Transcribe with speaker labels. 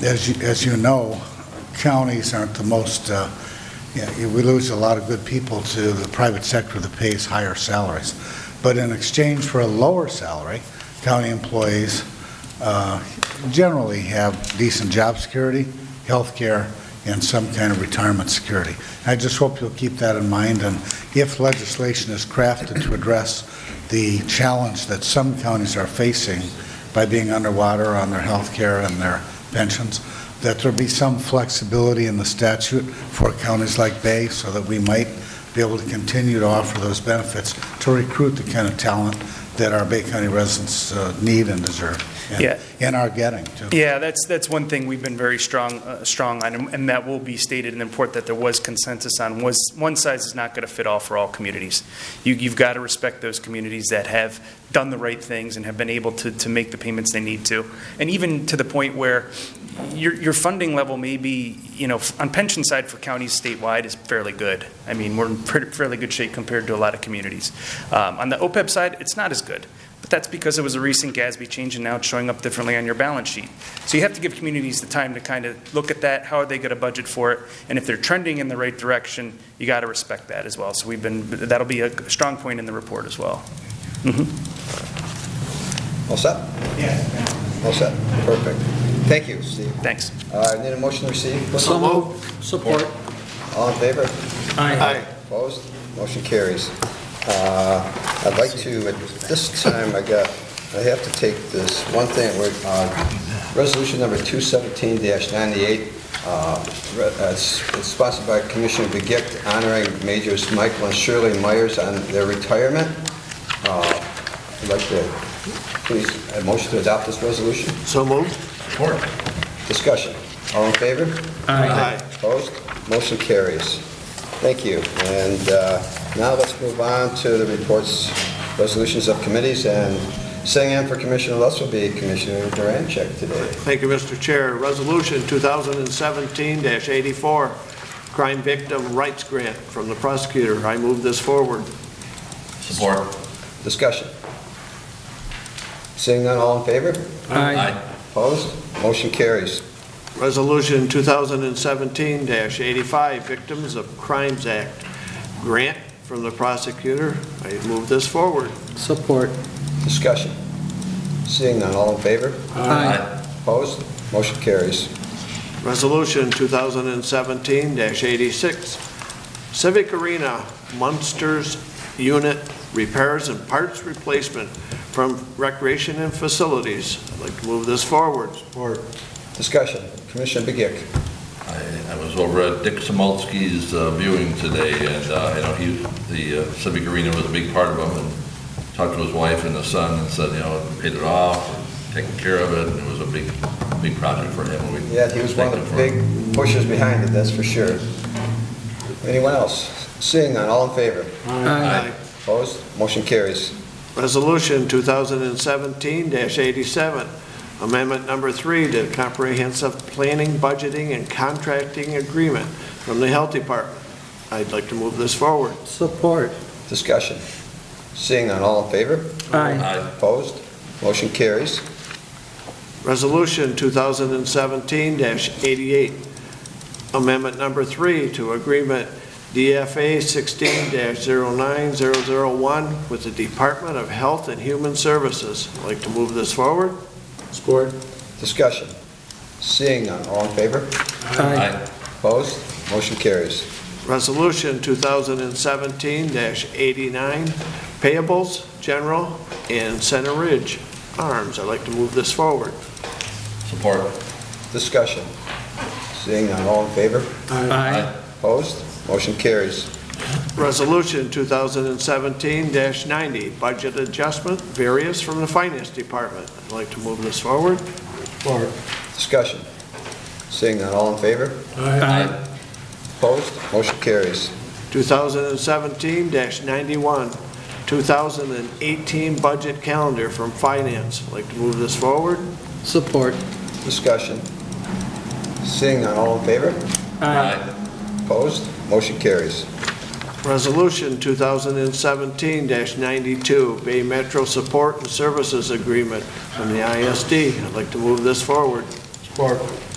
Speaker 1: As you, as you know, counties aren't the most, uh, yeah, we lose a lot of good people to the private sector that pays higher salaries. But in exchange for a lower salary, county employees uh, generally have decent job security, health care, and some kind of retirement security. I just hope you'll keep that in mind, and if legislation is crafted to address the challenge that some counties are facing by being underwater on their health care and their pensions, that there be some flexibility in the statute for counties like Bay so that we might be able to continue to offer those benefits to recruit the kind of talent that our Bay County residents uh, need and deserve. and-
Speaker 2: Yeah.
Speaker 1: And are getting, too.
Speaker 2: Yeah, that's, that's one thing we've been very strong, uh, strong on, and- and that will be stated in the report that there was consensus on, was one size is not going to fit all for all communities. You, you've got to respect those communities that have done the right things and have been able to, to make the payments they need to. And even to the point where your, your funding level may be, you know, on pension side for counties statewide is fairly good. I mean, we're in pretty- fairly good shape compared to a lot of communities. Um, On the OPEB side, it's not as good. But that's because it was a recent GASB change and now it's showing up differently on your balance sheet. So you have to give communities the time to kind of look at that, how are they going to budget for it? And if they're trending in the right direction, you got to respect that as well. So we've been, that'll be a strong point in the report as well.
Speaker 3: All set? Yes. All set, perfect. Thank you, Steve.
Speaker 2: Thanks.
Speaker 3: Uh, I Need a motion to receive?
Speaker 4: So moved. Support.
Speaker 3: All in favor?
Speaker 4: Aye.
Speaker 3: Opposed? Motion carries. Uh, I'd like to, at this time, I got, I have to take this one thing, we're on Resolution Number 217-98. uh, re- uh, It's it's sponsored by Commissioner Begic honoring Majors Michael and Shirley Myers on their retirement. Uh, I'd like to, please, a motion to adopt this resolution?
Speaker 4: So moved.
Speaker 3: Discussion. All in favor?
Speaker 4: Aye.
Speaker 3: Opposed? Motion carries. Thank you. And uh, now let's move on to the reports, resolutions of committees, and sitting in for Commissioner Lutz will be Commissioner Durancheck today.
Speaker 4: Thank you, Mr. Chair. Resolution 2017-84, Crime Victim Rights Grant from the prosecutor. I move this forward.
Speaker 5: Support.
Speaker 3: Discussion. Seeing none, all in favor?
Speaker 5: Aye.
Speaker 3: Opposed? Motion carries.
Speaker 4: Resolution 2017-85, Victims of Crimes Act Grant from the prosecutor. I move this forward.
Speaker 6: Support.
Speaker 3: Discussion. Seeing none, all in favor?
Speaker 5: Aye.
Speaker 3: Opposed? Motion carries.
Speaker 4: Resolution 2017-86, Civic Arena Munsters Unit Repairs and Parts Replacement from Recreation and Facilities. I'd like to move this forward. Or
Speaker 3: Discussion. Commissioner Begic.
Speaker 5: I I was over at Dick Samolsky's uh, viewing today, and, uh, you know, he, the uh, Civic Arena was a big part of him, and talked to his wife and his son, and said, you know, paid it off, taken care of it, and it was a big, big project for him. We
Speaker 3: Yeah, he was one of
Speaker 5: thank him
Speaker 3: the
Speaker 5: for
Speaker 3: big
Speaker 5: it.
Speaker 3: pushers behind it, that's for sure. Anyone else? Seeing none, all in favor?
Speaker 5: Aye.
Speaker 3: Opposed? Motion carries.
Speaker 4: Resolution 2017-87, Amendment Number Three to Comprehensive Planning, Budgeting, and Contracting Agreement from the Health Department. I'd like to move this forward.
Speaker 6: Support.
Speaker 3: Discussion. Seeing none, all in favor?
Speaker 6: Aye.
Speaker 5: Aye.
Speaker 3: Opposed? Motion carries.
Speaker 4: Resolution 2017-88, Amendment Number 3 to Agreement DFA 16-09001 with the Department of Health and Human Services. I'd like to move this forward. Support.
Speaker 3: Discussion. Seeing none, all in favor?
Speaker 6: Aye.
Speaker 3: Opposed? Motion carries.
Speaker 4: Resolution 2017-89, Payables, General, and Center Ridge Arms. I'd like to move this forward.
Speaker 5: Support.
Speaker 3: Discussion. Seeing none, all in favor?
Speaker 6: Aye.
Speaker 3: Opposed? Motion carries.
Speaker 4: Resolution 2017-90, budget adjustment, various from the Finance Department. I'd like to move this forward.
Speaker 3: Discussion. Seeing none, all in favor?
Speaker 6: Aye.
Speaker 3: Opposed? Motion carries.
Speaker 4: 2017-91, 2018 budget calendar from Finance. I'd like to move this forward.
Speaker 6: Support.
Speaker 3: Discussion. Seeing none, all in favor?
Speaker 5: Aye.
Speaker 3: Opposed? Motion carries.
Speaker 4: Resolution 2017-92, Bay Metro Support and Services Agreement from the ISD. I'd like to move this forward. Support.